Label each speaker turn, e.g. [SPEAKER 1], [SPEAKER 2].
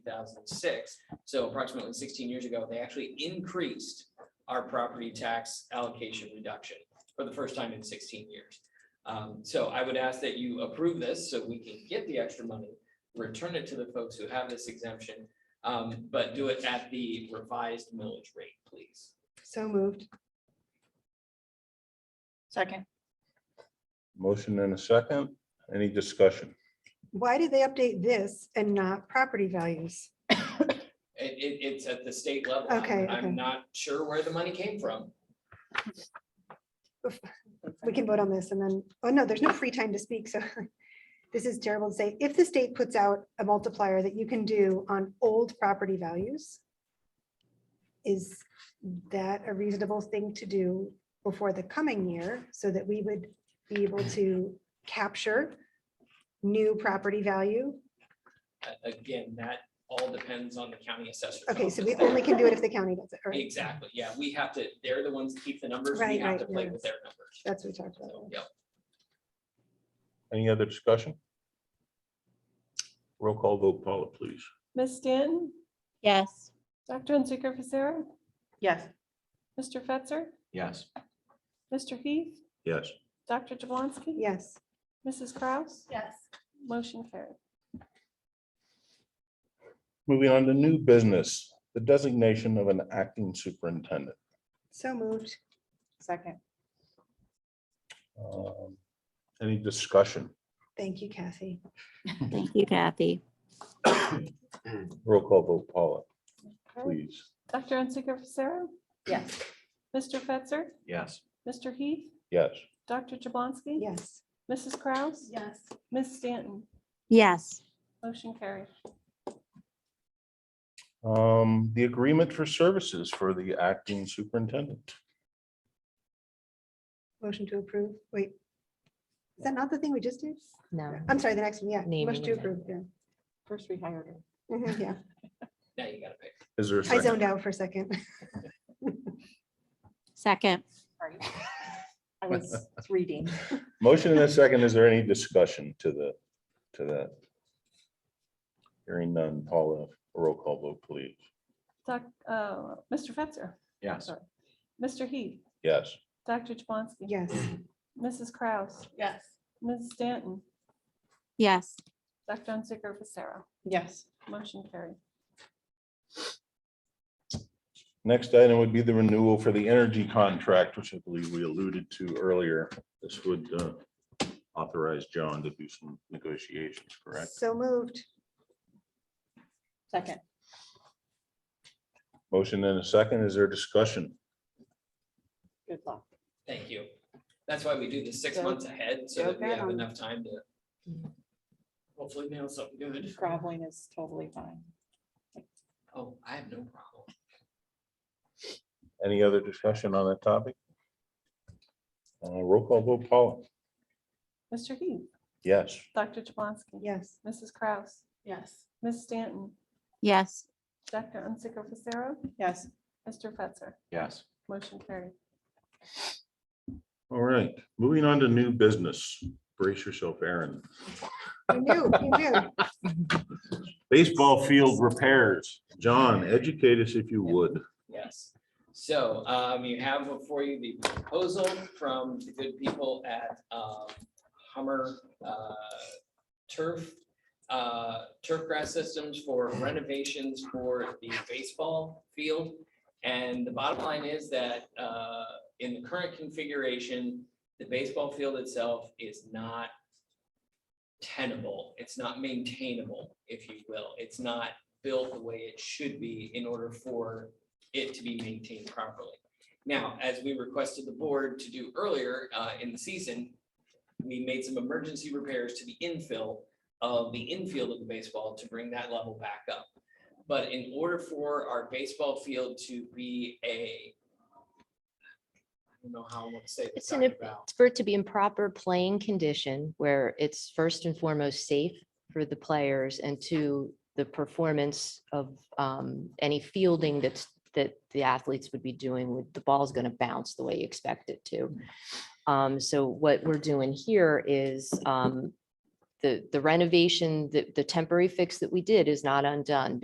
[SPEAKER 1] thousand six. So approximately sixteen years ago, they actually increased our property tax allocation reduction for the first time in sixteen years. Um, so I would ask that you approve this so we can get the extra money, return it to the folks who have this exemption. um, but do it at the revised millage rate, please.
[SPEAKER 2] So moved.
[SPEAKER 3] Second.
[SPEAKER 4] Motion and a second. Any discussion?
[SPEAKER 2] Why did they update this and not property values?
[SPEAKER 1] It, it, it's at the state level. I'm-
[SPEAKER 2] Okay, okay.
[SPEAKER 1] I'm not sure where the money came from.
[SPEAKER 2] We can vote on this and then, oh no, there's no free time to speak, so this is terrible to say. If the state puts out a multiplier that you can do on old property values, is that a reasonable thing to do before the coming year so that we would be able to capture new property value?
[SPEAKER 1] A- Again, that all depends on the county assessor.
[SPEAKER 2] Okay, so we only can do it if the county does it, all right?
[SPEAKER 1] Exactly, yeah, we have to, they're the ones that keep the numbers, we
[SPEAKER 2] Right,
[SPEAKER 1] have
[SPEAKER 2] right,
[SPEAKER 1] to play
[SPEAKER 2] yeah.
[SPEAKER 1] with their numbers.
[SPEAKER 2] That's what we talked
[SPEAKER 1] So,
[SPEAKER 2] about.
[SPEAKER 1] Yep,
[SPEAKER 4] Any other discussion? Roll call vote, Paula, please.
[SPEAKER 5] Ms. Stanton,
[SPEAKER 3] Yes.
[SPEAKER 5] Dr. Unzicker Fisera,
[SPEAKER 3] Yes.
[SPEAKER 5] Mr. Fetzer,
[SPEAKER 6] yes,
[SPEAKER 5] Mr. Heath,
[SPEAKER 4] Yes.
[SPEAKER 5] Dr. Jablonski,
[SPEAKER 2] Yes,
[SPEAKER 5] Mrs. Kraus,
[SPEAKER 3] Yes.
[SPEAKER 5] motion carried.
[SPEAKER 4] Moving on to new business, the designation of an acting superintendent.
[SPEAKER 2] so moved.
[SPEAKER 3] Second.
[SPEAKER 4] Um, Any discussion?
[SPEAKER 2] Thank you, Kathy.
[SPEAKER 7] Thank you, Kathy.
[SPEAKER 4] Roll call vote, Paula,
[SPEAKER 5] Okay.
[SPEAKER 4] please.
[SPEAKER 5] Dr. Unzicker Fisera,
[SPEAKER 3] Yes.
[SPEAKER 5] Mr. Fetzer,
[SPEAKER 6] yes,
[SPEAKER 5] Mr. Heath,
[SPEAKER 4] Yes.
[SPEAKER 5] Dr. Jablonski,
[SPEAKER 2] Yes.
[SPEAKER 5] Mrs. Kraus,
[SPEAKER 3] Yes.
[SPEAKER 5] Ms. Stanton,
[SPEAKER 7] Yes,
[SPEAKER 5] motion carried.
[SPEAKER 4] Um, The agreement for services for the acting superintendent.
[SPEAKER 2] Motion to approve. Wait. Is that not the thing we just did?
[SPEAKER 8] No.
[SPEAKER 2] I'm sorry, the next one, yeah.
[SPEAKER 8] Naming
[SPEAKER 2] Motion to
[SPEAKER 8] and
[SPEAKER 2] approve, yeah.
[SPEAKER 5] First we hired her.
[SPEAKER 2] Mhm, Yeah,
[SPEAKER 1] now you gotta pick.
[SPEAKER 4] Is there? a
[SPEAKER 2] I
[SPEAKER 4] second?
[SPEAKER 2] zoned out for a second.
[SPEAKER 7] second.
[SPEAKER 3] Sorry. I was reading.
[SPEAKER 4] Motion and a second. Is there any discussion to the, to that? Hearing none. Paula, roll call vote, please.
[SPEAKER 5] Doc, uh, Mr. Fetzer,
[SPEAKER 6] yes,
[SPEAKER 5] Mr. Heath,
[SPEAKER 4] Yes.
[SPEAKER 5] Dr. Jablonski.
[SPEAKER 2] Yes,
[SPEAKER 5] Mrs. Kraus,
[SPEAKER 3] Yes.
[SPEAKER 5] Ms. Stanton,
[SPEAKER 7] Yes,
[SPEAKER 5] Dr. Unzicker Fisera,
[SPEAKER 3] Yes.
[SPEAKER 5] motion carried.
[SPEAKER 4] Next item would be the renewal for the energy contract, which I believe we alluded to earlier. This would uh, authorize John to do some negotiations, correct?
[SPEAKER 2] so moved.
[SPEAKER 3] Second.
[SPEAKER 4] Motion and a second. Is there discussion?
[SPEAKER 3] Good luck.
[SPEAKER 1] Thank you. That's why we do this six
[SPEAKER 3] Go-
[SPEAKER 1] months ahead, so
[SPEAKER 3] go
[SPEAKER 1] that we
[SPEAKER 3] get
[SPEAKER 1] have
[SPEAKER 3] 'em.
[SPEAKER 1] enough time to
[SPEAKER 2] Mm.
[SPEAKER 1] hopefully nail something good.
[SPEAKER 3] Groveling is totally fine.
[SPEAKER 1] Oh, I have no problem.
[SPEAKER 4] Any other discussion on that topic? Uh, Roll call vote, Paula.
[SPEAKER 5] Mr. Heath,
[SPEAKER 4] Yes.
[SPEAKER 5] Dr. Jablonski.
[SPEAKER 2] Yes,
[SPEAKER 5] Mrs. Kraus,
[SPEAKER 3] Yes.
[SPEAKER 5] Ms. Stanton,
[SPEAKER 7] yes,
[SPEAKER 5] Dr. Unzicker Fisera,
[SPEAKER 3] Yes.
[SPEAKER 5] Mr. Fetzer,
[SPEAKER 6] yes.
[SPEAKER 5] motion carried.
[SPEAKER 4] All right. Moving on to new business. Brace yourself, Aaron.
[SPEAKER 2] you knew, you knew.
[SPEAKER 4] Baseball field repairs. John, educate us if you would.
[SPEAKER 1] Yes. So um, you have before you the proposal from the good people at um, Hummer uh, Turf, uh, turf grass systems for renovations for the baseball field. And the bottom line is that uh, in the current configuration, the baseball field itself is not tenable. It's not maintainable, if you will. It's not built the way it should be in order for it to be maintained properly. Now, as we requested the board to do earlier uh, in the season, we made some emergency repairs to the infill of the infield of the baseball to bring that level back up. But in order for our baseball field to be a I don't know how I want to say this,
[SPEAKER 8] It's an-
[SPEAKER 1] Dr. Val.
[SPEAKER 8] For it to be in proper playing condition where it's first and foremost safe for the players and to the performance of um, any fielding that's, that the athletes would be doing with, the ball's going to bounce the way you expect it to. Um, So what we're doing here is um, the, the renovation, the, the temporary fix that we did is not undone